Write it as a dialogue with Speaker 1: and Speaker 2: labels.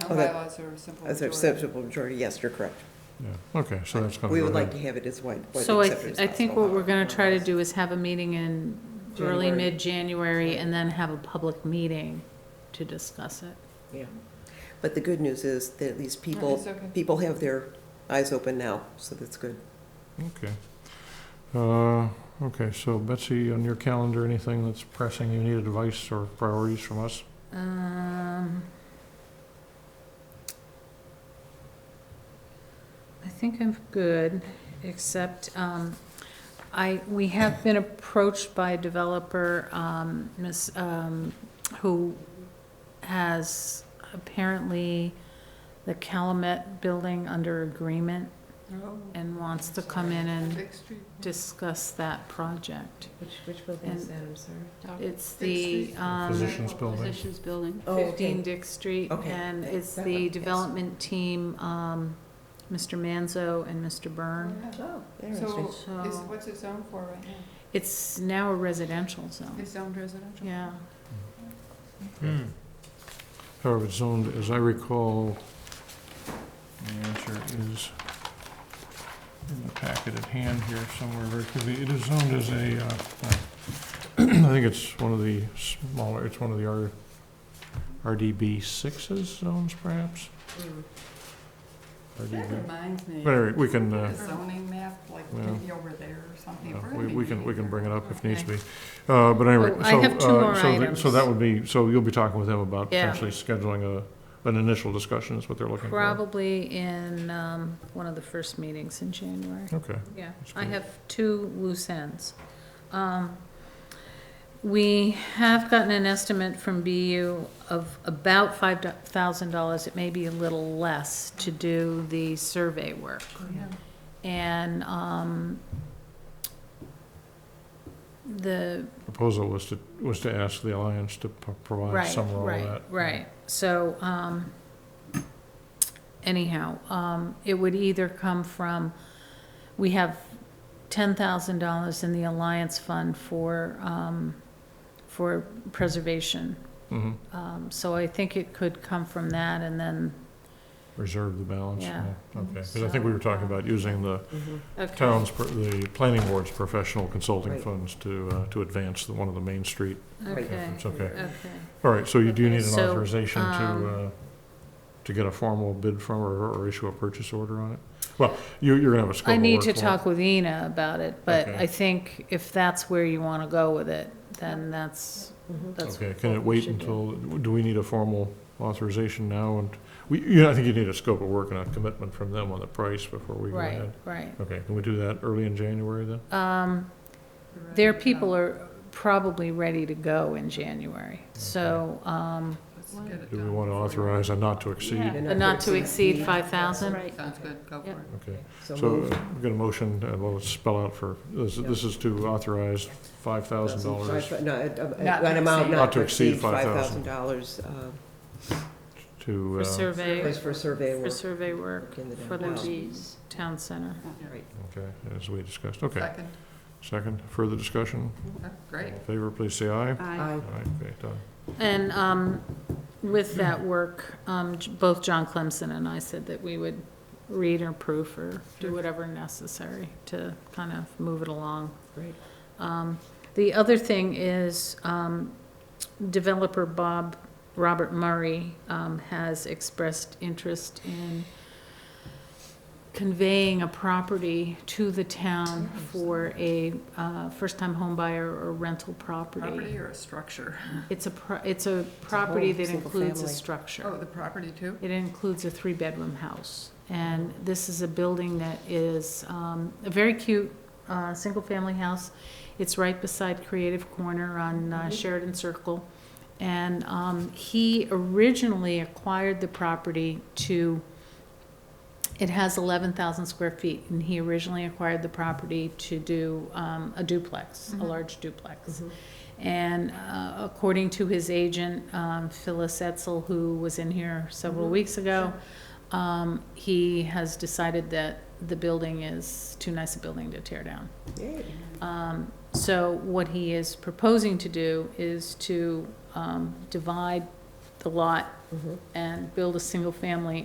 Speaker 1: Oh,
Speaker 2: town
Speaker 1: that-
Speaker 2: bylaws are a simple
Speaker 1: As a
Speaker 2: majority.
Speaker 1: simple majority, yes, you're correct.
Speaker 3: Yeah, okay, so that's gonna
Speaker 1: We
Speaker 3: go
Speaker 1: would like
Speaker 3: to,
Speaker 1: to have it as wide,
Speaker 4: So
Speaker 1: widely
Speaker 4: I,
Speaker 1: accepted as
Speaker 4: I think
Speaker 1: possible,
Speaker 4: what we're gonna
Speaker 1: however.
Speaker 4: try to do is have a meeting in early,
Speaker 1: January.
Speaker 4: mid-January, and then have a public meeting to discuss it.
Speaker 1: Yeah. But the good news is that at least people,
Speaker 2: It's okay.
Speaker 1: people have their eyes open now, so that's good.
Speaker 3: okay. Uh, Okay, so Betsy, on your calendar, anything that's pressing, you need advice or priorities from us?
Speaker 4: Um, I think I'm good, except, um, I, we have been approached by a developer, um, miss, um, who has apparently the Calumet building under agreement
Speaker 2: Oh,
Speaker 4: and wants to come in and
Speaker 2: Big Street.
Speaker 4: discuss that project.
Speaker 5: Which, which building is that, I'm sorry?
Speaker 4: It's the,
Speaker 2: Dixie.
Speaker 4: um.
Speaker 3: Physicians Building?
Speaker 5: Physicians Building.
Speaker 1: Oh,
Speaker 4: 15
Speaker 1: okay.
Speaker 4: Dick Street,
Speaker 1: Okay,
Speaker 4: and
Speaker 1: that-
Speaker 4: it's
Speaker 1: that one,
Speaker 4: the
Speaker 1: yes.
Speaker 4: development team, um, Mr. Manzo and Mr. Byrne.
Speaker 2: Yeah.
Speaker 5: Oh,
Speaker 2: So, is,
Speaker 4: So
Speaker 2: what's it zoned for right now?
Speaker 4: it's now a residential zone,
Speaker 2: It's zoned residential?
Speaker 4: yeah.
Speaker 3: However, it's zoned, as I recall, the answer is in the packet at hand here somewhere very quickly. It is zoned as a, uh, uh, I think it's one of the smaller, it's one of the R- RDB sixes zones perhaps?
Speaker 2: That
Speaker 3: RDB.
Speaker 2: reminds me.
Speaker 3: But anyway, we can, uh,
Speaker 2: A zoning map, like
Speaker 3: Well,
Speaker 2: maybe over there or something.
Speaker 3: Yeah,
Speaker 2: We're
Speaker 3: Uh, We,
Speaker 2: gonna
Speaker 3: we
Speaker 2: be
Speaker 3: can, we
Speaker 2: meeting
Speaker 3: can bring it up if needs
Speaker 4: Okay.
Speaker 3: be. Uh, but anyway,
Speaker 4: Oh, I
Speaker 3: so,
Speaker 4: have two
Speaker 3: uh,
Speaker 4: more
Speaker 3: so, th- so that
Speaker 4: items.
Speaker 3: would be, so you'll be talking with them about
Speaker 4: Yeah.
Speaker 3: potentially scheduling a, an initial discussion is what they're looking for.
Speaker 4: Probably in, um, one of the first meetings in January.
Speaker 3: Okay,
Speaker 4: Yeah,
Speaker 3: That's
Speaker 4: I
Speaker 3: good.
Speaker 4: have two loose ends. Um, We have gotten an estimate from BU of about five thousand dollars, it may be a little less, to do the survey work.
Speaker 2: Oh,
Speaker 4: And, um, the,
Speaker 3: proposal was to, was to ask the Alliance to p- provide
Speaker 4: right,
Speaker 3: some role of
Speaker 4: right,
Speaker 3: that.
Speaker 4: right. So, um, anyhow, um, it would either come from, we have ten thousand dollars in the Alliance Fund for, um, for preservation.
Speaker 3: Mhm.
Speaker 4: Um, so I think it could come from that and then,
Speaker 3: Reserve the balance,
Speaker 4: Yeah.
Speaker 3: yeah, okay. Because I think we were talking about using the
Speaker 4: okay.
Speaker 3: town's, pr- the planning board's professional consulting
Speaker 1: Right.
Speaker 3: funds to, uh, to advance the, one of the Main Street
Speaker 4: Okay,
Speaker 3: efforts, okay.
Speaker 4: okay.
Speaker 3: All right, so you do
Speaker 4: Okay,
Speaker 3: need an
Speaker 4: so,
Speaker 3: authorization to,
Speaker 4: um,
Speaker 3: uh, to get a formal bid from or, or issue a purchase order on it? Well, you, you're gonna have a scope
Speaker 4: I
Speaker 3: of
Speaker 4: need
Speaker 3: work
Speaker 4: to
Speaker 3: for it.
Speaker 4: talk with Ina about it, but
Speaker 3: Okay.
Speaker 4: I think if that's where you want to go with it, then that's,
Speaker 1: Mm-hmm.
Speaker 4: that's.
Speaker 3: Okay, can it
Speaker 4: what we
Speaker 3: wait
Speaker 4: should do.
Speaker 3: until, do we need a formal authorization now? And we, you know, I think you need a scope of work and a commitment from them on the price before we go
Speaker 4: Right,
Speaker 3: ahead.
Speaker 4: right.
Speaker 3: Okay, can we do that early in January then?
Speaker 4: Um,
Speaker 2: Right.
Speaker 4: their people are probably ready to go in January, so, um,
Speaker 2: Let's get it
Speaker 3: Do we
Speaker 2: done
Speaker 3: want to
Speaker 2: before
Speaker 3: authorize a not to
Speaker 4: yeah,
Speaker 3: exceed?
Speaker 1: And
Speaker 4: but
Speaker 1: not
Speaker 4: not
Speaker 1: to
Speaker 4: to exceed
Speaker 5: exceed.
Speaker 4: five thousand.
Speaker 2: you-
Speaker 5: Right.
Speaker 2: Sounds good, go for
Speaker 4: Yep.
Speaker 2: it.
Speaker 3: Okay, so uh,
Speaker 1: moved.
Speaker 3: we've got a motion, uh, well, let's spell out for, this, this is to authorize five thousand dollars
Speaker 1: Five- No, a-
Speaker 2: Not
Speaker 1: a-
Speaker 2: to
Speaker 1: an amount
Speaker 2: exceed.
Speaker 1: not to exceed five thousand dollars, uh,
Speaker 3: to,
Speaker 4: For
Speaker 3: uh,
Speaker 4: survey,
Speaker 1: is for survey
Speaker 4: for
Speaker 1: work
Speaker 4: survey work
Speaker 1: in the
Speaker 4: for
Speaker 1: downtown.
Speaker 4: the town center.
Speaker 2: Yeah.
Speaker 1: Right.
Speaker 3: okay, as we discussed, okay.
Speaker 2: Second,
Speaker 3: Second, further discussion?
Speaker 2: Okay,
Speaker 3: All
Speaker 2: great.
Speaker 3: in favor, please say aye.
Speaker 5: Aye.
Speaker 1: I-
Speaker 3: All right, okay, done.
Speaker 4: And um, with that work, um, j- both John Clemson and I said that we would read or proof or do whatever necessary to kind of move it along.
Speaker 1: Great.
Speaker 4: Um, The other thing is um, developer Bob, Robert Murray, um, has expressed interest in conveying a property to the town for a uh, first-time home buyer or rental
Speaker 2: Property or a structure?
Speaker 4: it's a, pro- it's a property that
Speaker 1: single
Speaker 4: includes a
Speaker 1: family.
Speaker 2: Oh,
Speaker 4: structure.
Speaker 2: the property too?
Speaker 4: It includes a three-bedroom house. And this is a building that is um, a very cute, uh, single-family house. It's right beside Creative Corner on uh, Sheridan Circle. And um, he originally acquired the property to, it has 11,000 square feet, and he originally acquired the property to do um, a duplex, a
Speaker 2: Mhm.
Speaker 4: large duplex. And uh, according to his agent, um, Phyllis Etzel, who was in here several
Speaker 2: Mhm.
Speaker 4: weeks ago, um, he has decided that the building is too nice a building to tear down.
Speaker 1: Yay.
Speaker 4: Um, So what he is proposing to do is to um, divide the lot
Speaker 1: Mhm.
Speaker 4: and build a single-family